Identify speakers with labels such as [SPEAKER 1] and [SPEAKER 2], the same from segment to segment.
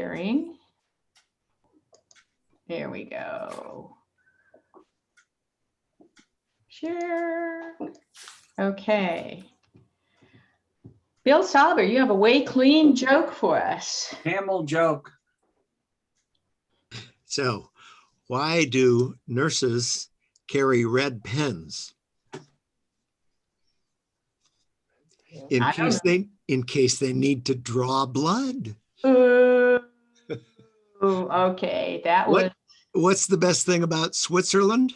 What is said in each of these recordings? [SPEAKER 1] sharing. There we go. Share. Okay. Bill Salber, you have a way clean joke for us.
[SPEAKER 2] Camel joke.
[SPEAKER 3] So, why do nurses carry red pens? In
[SPEAKER 1] I don't
[SPEAKER 3] case they, in case they need to draw blood.
[SPEAKER 1] Ooh, okay, that was,
[SPEAKER 3] What? What's the best thing about Switzerland?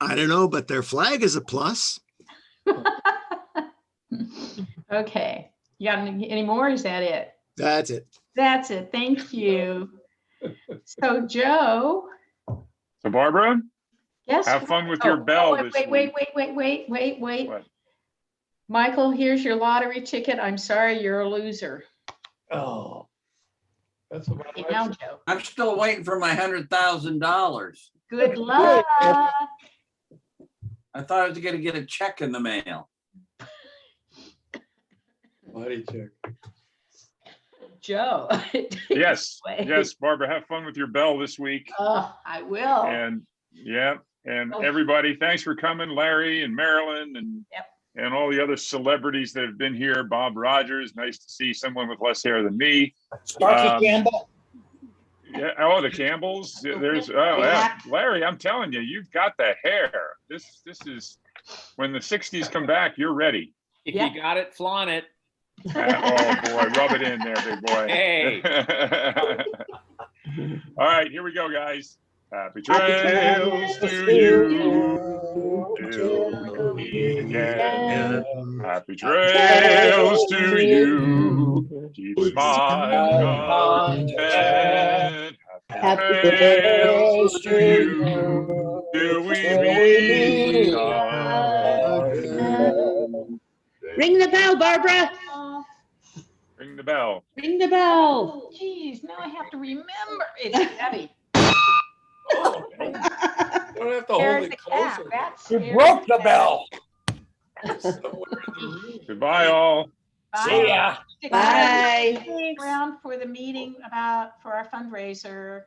[SPEAKER 3] I don't know, but their flag is a plus.
[SPEAKER 1] okay. You got any any more? Is that it?
[SPEAKER 3] That's it.
[SPEAKER 1] That's it. Thank you. So Joe,
[SPEAKER 4] So Barbara,
[SPEAKER 1] yes.
[SPEAKER 4] have fun with
[SPEAKER 1] Oh,
[SPEAKER 4] your
[SPEAKER 1] oh,
[SPEAKER 4] bell
[SPEAKER 1] wait,
[SPEAKER 4] this
[SPEAKER 1] Wait,
[SPEAKER 4] week.
[SPEAKER 1] wait, wait, wait, wait, wait, wait.
[SPEAKER 4] What?
[SPEAKER 1] Michael, here's your lottery ticket. I'm sorry, you're a loser.
[SPEAKER 5] Oh. That's about
[SPEAKER 1] You know,
[SPEAKER 5] right.
[SPEAKER 1] Joe.
[SPEAKER 2] I'm still waiting for my hundred thousand dollars.
[SPEAKER 1] Good luck.
[SPEAKER 2] I thought I was gonna get a check in the mail.
[SPEAKER 5] Body check.
[SPEAKER 1] Joe.
[SPEAKER 4] Yes,
[SPEAKER 1] Wait.
[SPEAKER 4] yes, Barbara, have fun with your bell this week.
[SPEAKER 1] Oh, I will.
[SPEAKER 4] And yeah, and
[SPEAKER 1] Oh.
[SPEAKER 4] everybody, thanks for coming, Larry and Marilyn and
[SPEAKER 1] Yep.
[SPEAKER 4] and all the other celebrities that have been here. Bob Rogers, nice to see someone with less hair than me. Um,
[SPEAKER 6] Sparky Campbell,
[SPEAKER 4] Yeah, oh, the Campbells. Yeah, There's, oh, yeah. Larry, I'm telling you, you've got the hair. This, this is, when the sixties come back, you're ready.
[SPEAKER 7] If
[SPEAKER 1] Yeah.
[SPEAKER 7] you got it, flaunt it.
[SPEAKER 4] Ah, Oh, boy, rub it in there, big boy.
[SPEAKER 7] Hey.
[SPEAKER 4] All right, here we go, guys. Happy trails to you. till we meet again. Happy trails to you. Keep smiling content.
[SPEAKER 6] happy
[SPEAKER 4] Trails
[SPEAKER 6] birthday
[SPEAKER 4] to you.
[SPEAKER 6] to
[SPEAKER 4] Till we meet
[SPEAKER 6] meet
[SPEAKER 4] again.
[SPEAKER 6] you. Ring the bell, Barbara.
[SPEAKER 1] Oh,
[SPEAKER 4] Ring the bell.
[SPEAKER 6] Ring the bell.
[SPEAKER 1] Geez, now I have to remember. It's heavy.
[SPEAKER 5] Don't have to hold
[SPEAKER 1] There's
[SPEAKER 5] it
[SPEAKER 1] the cap.
[SPEAKER 5] closer.
[SPEAKER 1] That's.
[SPEAKER 6] You broke the
[SPEAKER 1] bell.
[SPEAKER 5] Somewhere in the room.
[SPEAKER 4] Goodbye, all.
[SPEAKER 1] Bye. Stick around-
[SPEAKER 6] Bye.
[SPEAKER 1] Stick around for the meeting about, for our fundraiser.